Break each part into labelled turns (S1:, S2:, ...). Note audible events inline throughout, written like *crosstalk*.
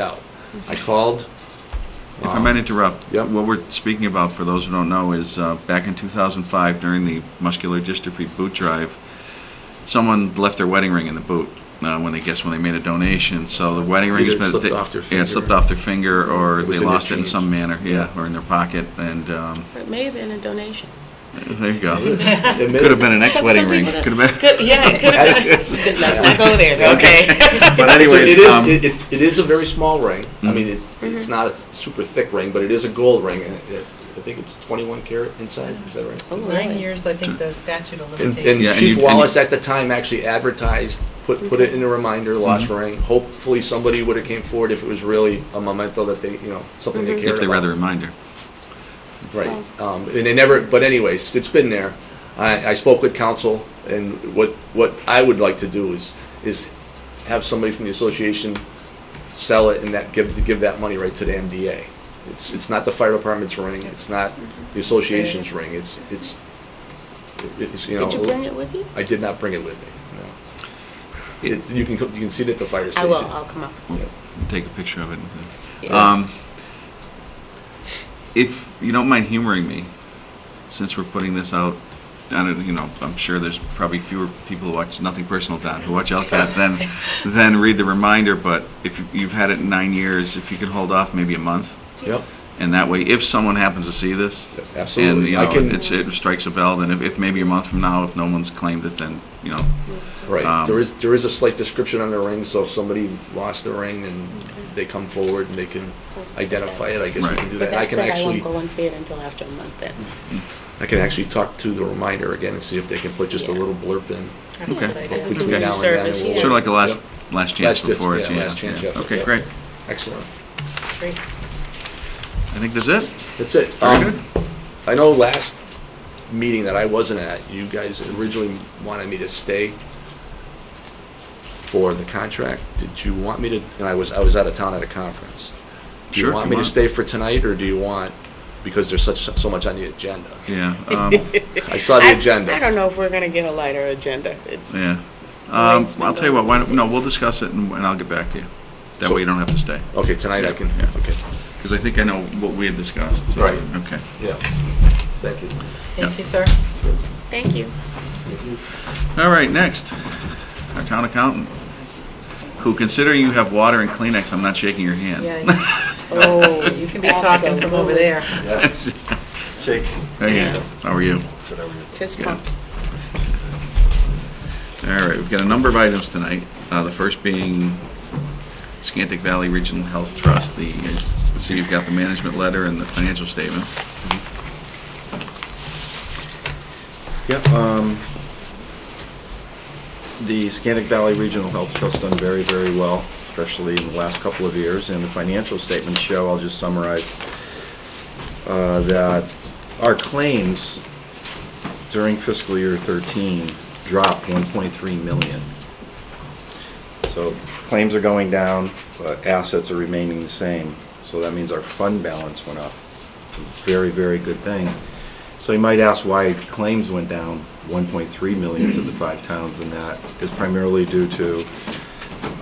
S1: out. I called. um,
S2: If I might interrupt.
S1: Yep.
S2: What we're speaking about, for those who don't know, is uh, back in 2005, during the muscular dystrophy boot drive, someone left their wedding ring in the boot uh, when they, guess when they made a donation. So the wedding ring
S1: Either
S2: has
S1: it
S2: been...
S1: slipped
S2: they-
S1: off their
S2: Yeah,
S1: finger.
S2: it slipped off their finger, or
S1: It was
S2: they
S1: in their
S2: lost it in
S1: jeans.
S2: some manner, yeah, or in their pocket, and, um,
S3: It may have been a donation.
S2: there you go. Could have been an
S3: Some-
S2: ex-wedding
S3: some
S2: ring.
S3: people
S2: Could
S3: don't-
S2: have been...
S3: Could- Yeah, it
S2: *laughs*
S3: could have been. Let's not go there, okay?
S1: It's
S2: But
S1: a-
S2: anyways,
S1: it is-
S2: um, Mm-hmm.
S1: it- it- it is a very small ring. I mean, it, it's not a super thick ring, but it is a gold ring, and it, I think it's 21 karat inside. Is that right?
S3: Oh,
S4: Nine
S3: really?
S4: years, I think the statute of
S1: And,
S4: limitations.
S1: and
S2: Yeah, and you-
S1: Chief
S2: and you-
S1: Wallace at the time actually advertised, put put it in a reminder, lost
S2: Mm-hmm.
S1: ring. Hopefully, somebody would have came forward if it was really a memento that they, you know, something they cared
S2: if they
S1: about.
S2: read the reminder.
S1: Right, um, and they never, but anyways, it's been there. I, I spoke with council, and what, what I would like to do is, is have somebody from the association sell it and that, give, give that money right to the MDA. It's, it's not the fire department's ring, it's not the association's ring, it's, it's, it's, you know.
S3: Did you bring it with you?
S1: I did not bring it with me, no. It- You can, co- you can see it at the fire
S3: I
S1: station.
S3: will, I'll come up. and see.
S2: take a picture of it. and-
S3: Yeah.
S2: Um, if you don't mind humoring me, since we're putting this out, I don't, you know, I'm sure there's probably fewer people who watch Nothing Personal Don who
S1: *laughs*
S2: watch LCAT than than read the reminder. But if you've had it in nine years, if you could hold off maybe a month,
S1: Yep,
S2: and that way, if someone happens to see this, and
S1: Absolutely.
S2: you
S1: I
S2: know,
S1: can-
S2: it's, it strikes a bell, then if, if maybe a month from now, if no one's claimed it, then you know,
S1: right.
S2: Um,
S1: There is, there is a slight description on the ring, so if somebody lost the ring and they come forward and they can identify it, I guess we
S2: Right.
S1: can do
S5: But
S1: that. I
S5: that
S1: can
S5: said, I
S1: actually,
S5: won't go and see it until after a month then.
S1: I can actually talk to the reminder again and see if they can put just a
S5: Yeah.
S1: little blurb in.
S4: That's a good
S2: Okay.
S4: idea.
S3: As
S1: Between now
S3: a community
S1: and then,
S3: service,
S1: we'll-
S3: yeah.
S2: sort of like a last
S1: Yep.
S2: last chance
S1: Last dis-
S2: before it's
S1: yeah, last chance, yeah.
S2: Okay,
S1: Yep.
S2: great.
S1: Excellent.
S4: Great.
S2: I think that's it.
S1: That's it.
S2: Very
S1: Um,
S2: good.
S1: I know last meeting that I wasn't at, you guys originally wanted me to stay for the contract. Did you want me to, and I was, I was out of town at a conference. Do
S2: Sure,
S1: you
S2: if
S1: want
S2: you
S1: me to
S2: want.
S1: stay for tonight, or do you want, because there's such, so much on the agenda?
S2: Yeah.
S1: *laughs*
S2: Um,
S1: I saw the
S3: I-
S1: agenda.
S3: I don't know if we're gonna get a lighter agenda. It's,
S2: Yeah.
S3: Well,
S2: Um,
S3: it's been
S2: I'll tell you what,
S3: going
S2: why
S3: these
S2: don't, no,
S3: days.
S2: we'll discuss it and, and I'll get back to you. That
S1: So-
S2: way you don't have to stay.
S1: Okay, tonight I can,
S2: Yeah.
S1: okay,
S2: Because I think I know what we had discussed, so.
S1: Right.
S2: Okay.
S1: yeah. Thank you.
S4: Thank you, sir.
S3: thank you.
S2: All right, next, our town accountant, who considering you have water and Kleenex, I'm not shaking your hand. *laughs*
S4: Yeah. Oh, you can be talking from over there.
S6: Shake.
S2: Hey, how are you?
S3: Fist
S2: Yeah.
S3: bump.
S2: All right, we've got a number of items tonight. Uh, the first being Scantic Valley Regional Health Trust, the, so you've got the management letter and the financial statements.
S6: Yep. um, The Scantic Valley Regional Health Trust done very, very well, especially in the last couple of years, and the financial statements show, I'll just summarize, uh, that our claims during fiscal year 13 dropped 1.3 million. So claims are going down, but assets are remaining the same, so that means our fund balance went up. Very, very good thing. So you might ask why claims went down 1.3 million to the five towns, and that is primarily due to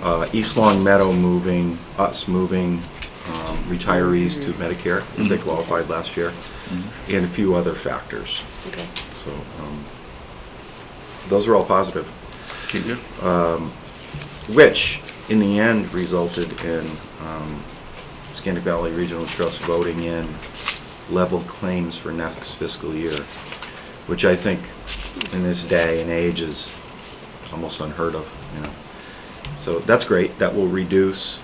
S6: uh, East Long Meadow moving, us moving um, retirees to Medicare, if they qualified last year, and a few other factors.
S3: Okay.
S6: So um, those are all positive,
S2: Can you?
S6: which in the end resulted in um, Scandic Valley Regional Trust voting in level claims for next fiscal year, which I think in this day and age is almost unheard of, you know. So that's great. That will reduce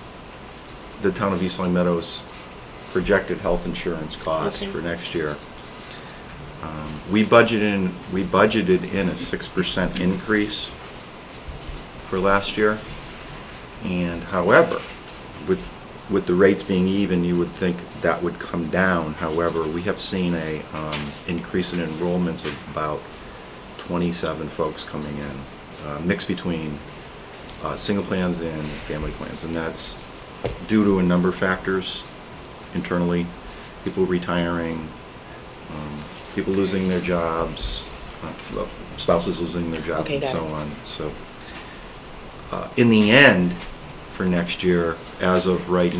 S6: the town of East Long Meadows' projected health insurance costs
S3: Okay.
S6: for next year. Um, We budgeted in, we budgeted in a six percent increase for last year. And however, with, with the rates being even, you would think that would come down. However, we have seen a, um, increase in enrollments of about twenty-seven folks coming in, uh, mixed between, uh, single plans and family plans. And that's due to a number of factors internally, people retiring, um, people losing their jobs, uh, spouses losing their jobs
S3: Okay,
S6: and
S3: got
S6: so
S3: it.
S6: on. So, uh, in the end, for next year, as of right